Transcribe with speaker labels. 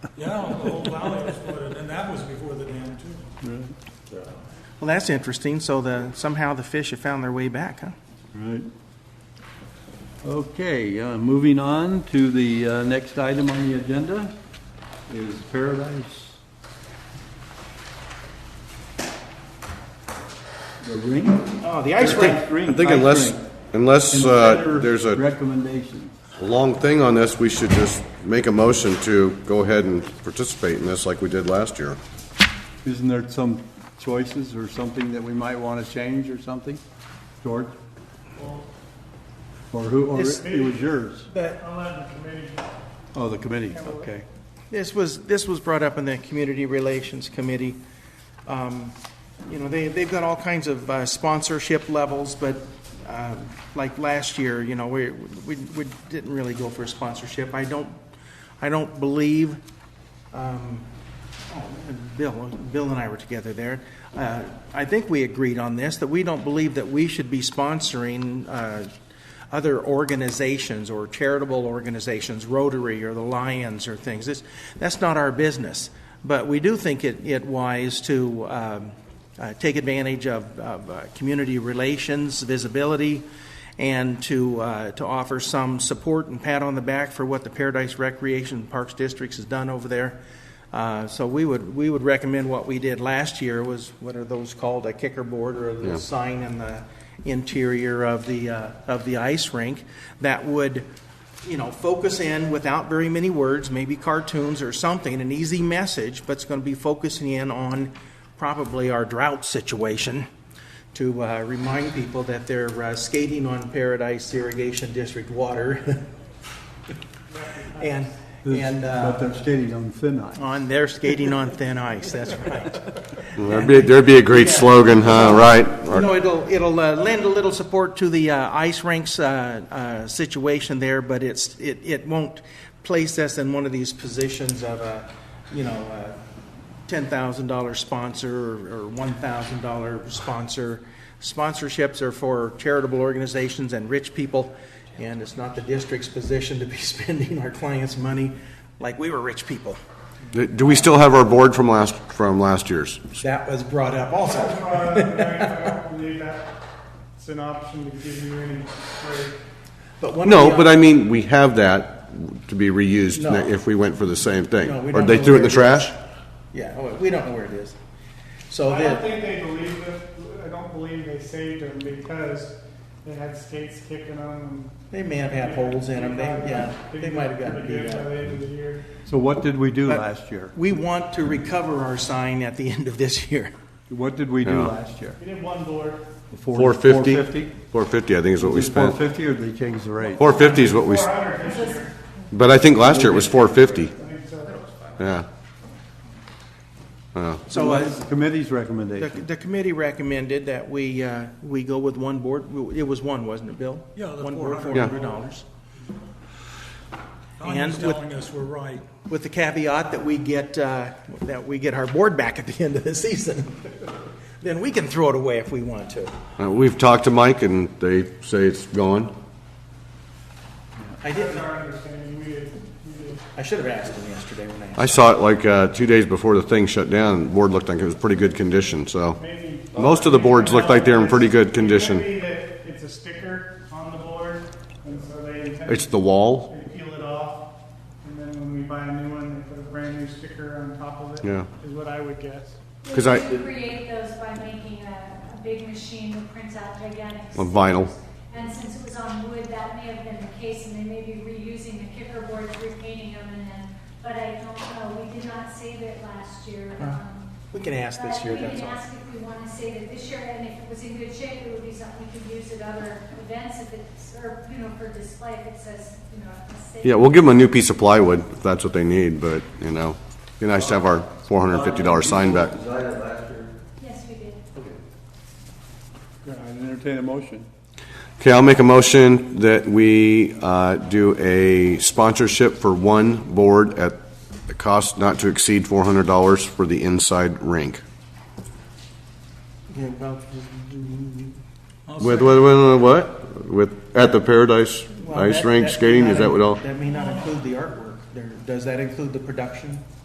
Speaker 1: Yeah, the whole valley exploded, and that was before the dam too.
Speaker 2: Well, that's interesting. So the, somehow the fish have found their way back, huh?
Speaker 3: Right. Okay, uh, moving on to the uh, next item on the agenda is Paradise. The rink?
Speaker 2: Oh, the ice rink.
Speaker 4: I think unless, unless uh, there's a
Speaker 3: Recommendation.
Speaker 4: long thing on this, we should just make a motion to go ahead and participate in this like we did last year.
Speaker 3: Isn't there some choices or something that we might want to change or something? George? Or who, or
Speaker 2: This-
Speaker 3: it was yours?
Speaker 2: But
Speaker 1: I'll let the committee.
Speaker 3: Oh, the committee, okay.
Speaker 2: this was, this was brought up in the Community Relations Committee. Um, You know, they, they've got all kinds of uh, sponsorship levels, but um, like last year, you know, we, we, we didn't really go for a sponsorship. I don't, I don't believe, um, oh, Bill, Bill and I were together there. Uh, I think we agreed on this, that we don't believe that we should be sponsoring uh, other organizations or charitable organizations, Rotary or the Lions or things. It's, that's not our business. But we do think it, it wise to um, uh, take advantage of, of uh, community relations, visibility, and to, uh, to offer some support and pat on the back for what the Paradise Recreation and Parks Districts has done over there. Uh, so we would, we would recommend what we did last year was, what are those called, a kicker board or the sign in the interior of the, uh, of the ice rink that would, you know, focus in without very many words, maybe cartoons or something, an easy message, but it's going to be focusing in on probably our drought situation to uh, remind people that they're uh, skating on Paradise Irrigation District water. and, and. uh,
Speaker 3: But they're skating on thin ice.
Speaker 2: on their skating on thin ice, that's right.
Speaker 4: There'd be, there'd be a great slogan, huh, right?
Speaker 2: You know, it'll, it'll uh, lend a little support to the uh, ice rinks uh, uh, situation there, but it's, it, it won't place us in one of these positions of a, you know, uh, a $10,000 sponsor or or $1,000 sponsor. Sponsorships are for charitable organizations and rich people, and it's not the district's position to be spending our clients' money like we were rich people.
Speaker 4: Do- Do we still have our board from last, from last year's?
Speaker 2: That was brought up also.
Speaker 5: Uh,
Speaker 1: I don't believe that it's an option to give you any break.
Speaker 2: But one
Speaker 4: No,
Speaker 2: of the-
Speaker 4: but I mean, we have that to be reused
Speaker 2: No.
Speaker 4: if we went for the same thing.
Speaker 2: No, we
Speaker 4: Or
Speaker 2: don't
Speaker 4: they
Speaker 2: know
Speaker 4: threw it in the
Speaker 2: where it
Speaker 4: trash?
Speaker 2: Yeah, oh, we don't know where it is. So
Speaker 5: I don't
Speaker 2: the,
Speaker 5: think they believe it. I don't believe they saved them because they had skates kicking on them.
Speaker 2: they may have had holes in them, they, yeah, they might have gotten beat
Speaker 5: By
Speaker 2: up.
Speaker 5: the end of the year.
Speaker 3: So what did we do
Speaker 2: But-
Speaker 3: last year?
Speaker 2: We want to recover our sign at the end of this year.
Speaker 3: What did we do
Speaker 4: Yeah.
Speaker 3: last year?
Speaker 5: We did one board.
Speaker 4: Four fifty?
Speaker 3: 450?
Speaker 4: Four fifty, I think is what we
Speaker 3: Is it 450
Speaker 4: spent.
Speaker 3: or did they change the rate?
Speaker 4: Four fifty is what we, s- but I think last year it was four fifty,
Speaker 5: I think so.
Speaker 4: yeah.
Speaker 2: So
Speaker 3: What
Speaker 2: uh,
Speaker 3: is the committee's
Speaker 2: the,
Speaker 3: recommendation?
Speaker 2: the committee recommended that we, uh, we go with one board, it was one, wasn't it, Bill?
Speaker 1: Yeah, the
Speaker 2: One board,
Speaker 1: $400.
Speaker 2: four hundred dollars. And
Speaker 1: Tanya's
Speaker 2: with-
Speaker 1: telling us we're right.
Speaker 2: With the caveat that we get, uh, that we get our board back at the end of the season. Then we can throw it away if we want to.
Speaker 4: Uh, We've talked to Mike, and they say it's gone.
Speaker 2: I
Speaker 5: That's
Speaker 2: didn't,
Speaker 5: our understanding. We did, we did.
Speaker 2: I should have asked him yesterday when I asked.
Speaker 4: I saw it like uh, two days before the thing shut down, and the board looked like it was pretty good condition, so.
Speaker 5: Maybe-
Speaker 4: Most of the boards look like they're in pretty good
Speaker 5: It
Speaker 4: condition.
Speaker 5: could be that it's a sticker on the board, and so they intend
Speaker 4: It's the wall,
Speaker 5: They peel it off, and then when we buy a new one, they put a brand new sticker on top of it.
Speaker 4: Yeah.
Speaker 5: Is what I would guess.
Speaker 4: 'Cause I-
Speaker 6: We create those by making a, a big machine that prints out gigantic.
Speaker 4: On vinyl.
Speaker 6: stickers. And since it was on wood, that may have been the case, and they may be reusing the kicker boards, repainting them, and then, but I don't know, we did not save it last year. um,
Speaker 2: We can ask this year,
Speaker 6: But we
Speaker 2: that's
Speaker 6: can
Speaker 2: all.
Speaker 6: ask if we want to save it this year, and if it was in good shape, it would be something we could use at other events, if it's, or, you know, for display, if it says, you know, if it's saved.
Speaker 4: yeah, we'll give them a new piece of plywood if that's what they need, but, you know, it'd be nice to have our four hundred and fifty dollar sign back.
Speaker 6: Yes, we did.
Speaker 3: I entertain a motion.
Speaker 4: Okay, I'll make a motion that we uh, do a sponsorship for one board at a cost not to exceed four hundred dollars for the inside rink.
Speaker 2: Yeah, well,
Speaker 1: I'll
Speaker 4: With,
Speaker 1: second.
Speaker 4: with, with what? With, at the Paradise
Speaker 2: well,
Speaker 4: Ice
Speaker 2: that-
Speaker 4: Rink
Speaker 2: that may
Speaker 4: skating,
Speaker 2: not
Speaker 4: is that what
Speaker 2: in-
Speaker 4: all?
Speaker 2: That may not include the artwork. There, does that include the production?